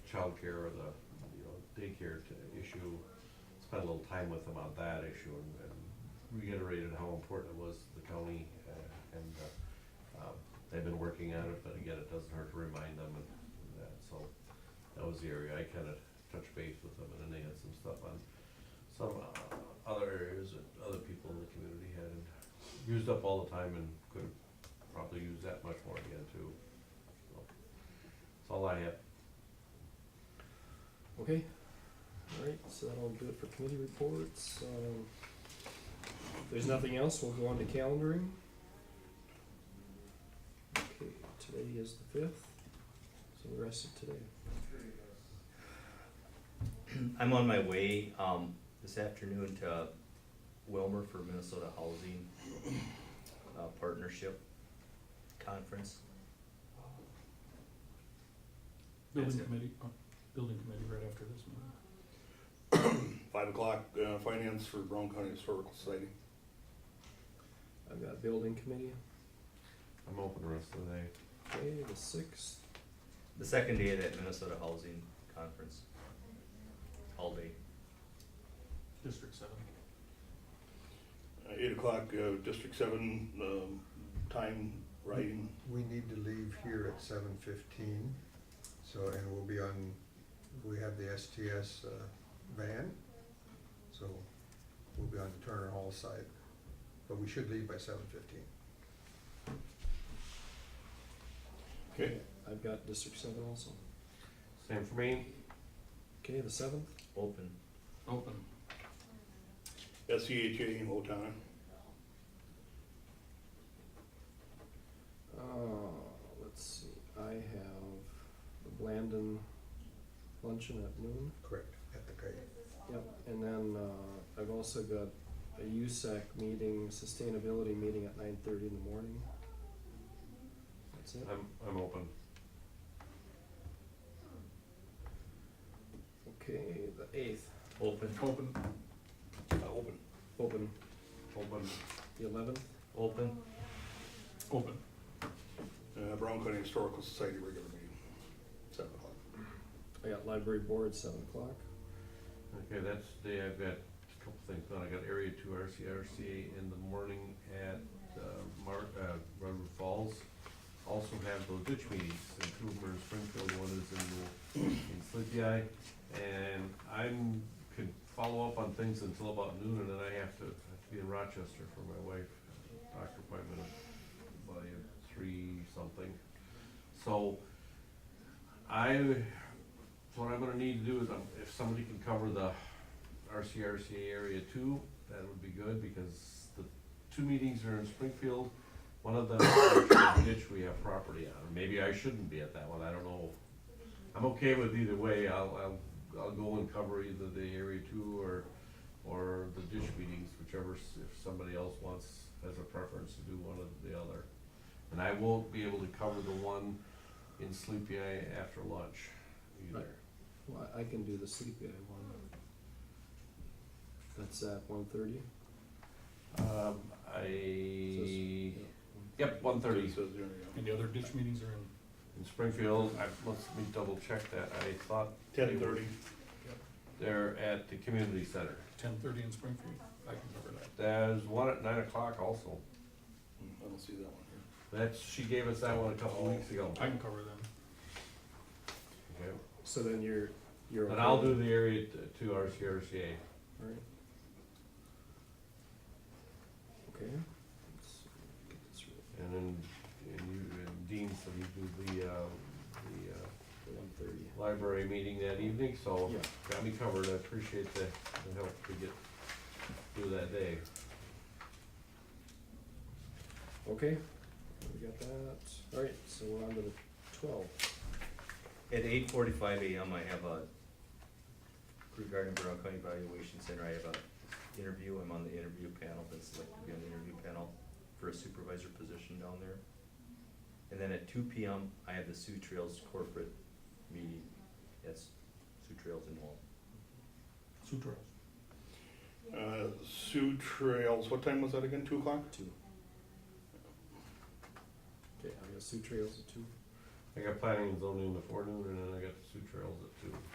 childcare or the, you know, daycare to issue, spent a little time with them on that issue and- and reiterated how important it was to the county uh, and, uh, um, they've been working on it, but again, it doesn't hurt to remind them and that, so that was the area I kinda touched base with them and then they had some stuff on some uh, other areas that other people in the community had used up all the time and could probably use that much more again too. So, That's all I have. Okay, alright, so that'll do it for committee reports, um, if there's nothing else, we'll go on to calendaring. Okay, today is the fifth, so the rest of today, I'm on my way, um, this afternoon to Wilmer for Minnesota Housing uh, Partnership Conference. Building That's it. committee, uh, building committee right after this meeting. Five o'clock, uh, finance for Brown County Historical Society. I've got building committee, I'm open the rest of the day. okay, the sixth, The second day of that Minnesota Housing Conference. All day. District seven. Uh, Eight o'clock, uh, District Seven, um, time writing. We need to leave here at seven fifteen, so, and we'll be on, we have the STS uh, van, so we'll be on the Turner Hall side, but we should leave by seven fifteen. Okay. I've got district seven also, Same for me. okay, the seventh, Open. Open. SCHA in Otana. uh, let's see, I have the Blandon luncheon at noon. Correct. At the Kite. Yep, and then uh, I've also got a USAC meeting, sustainability meeting at nine thirty in the morning. That's it, I'm, I'm open. okay, the eighth, Open. Open. Uh, open. open, Open. the eleventh, Open. Open. Uh, Brown County Historical Society regular meeting, seven o'clock. I got library board, seven o'clock. Okay, that's the day I've got a couple things on. I got area two RCRCA in the morning at, uh, Mar, uh, Redwood Falls. Also have those ditch meetings in Cooper and Springfield, one is in, in Sleepy Eye. And I'm, could follow up on things until about noon and then I have to, I have to be in Rochester for my wife, doctor appointment by three something. So, I so what I'm gonna need to do is, um, if somebody can cover the RCRCA area two, that would be good, because the two meetings are in Springfield. One of them, is ditch we have property on, maybe I shouldn't be at that one, I don't know. I'm okay with either way, I'll, I'll, I'll go and cover either the area two or, or the ditch meetings, whichever, s- if somebody else wants, has a preference to do one or the other. And I won't be able to cover the one in Sleepy Eye after lunch either. Well, I can do the sleepy eye one. That's at one thirty? Um, I, yep, one thirty Says there, yeah. And the other ditch meetings are in, in Springfield, I, let me double check that, I thought. Ten thirty. They're at the community center, ten thirty in Springfield, I can cover that. there's one at nine o'clock also, Hmm, I don't see that one here. that's, she gave us that one a couple weeks ago. I can cover them. Okay. So then you're, you're. Then okay I'll with- do the area t- two RCRCA, Alright. Okay. Let's get this right. and then, and you, and Dean said he'd do the, uh, the, uh, One thirty. library meeting that evening, so. Yeah. Got me covered, I appreciate the, the help to get through that day. Okay, we got that. Alright, so we're on to the twelve. At eight forty-five AM, I have a, regarding Brown County Evaluation Center, I have a interview, I'm on the interview panel, been selected to be on the interview panel for a supervisor position down there. And then at two PM, I have the Sioux Trails corporate meeting, that's Sioux Trails in Wall. Sioux Trails. Uh, Sioux Trails, what time was that again, two o'clock? Two. Okay, I got Sioux Trails at two. I got planning and zoning in the forenoon, and then I got the Sioux Trails at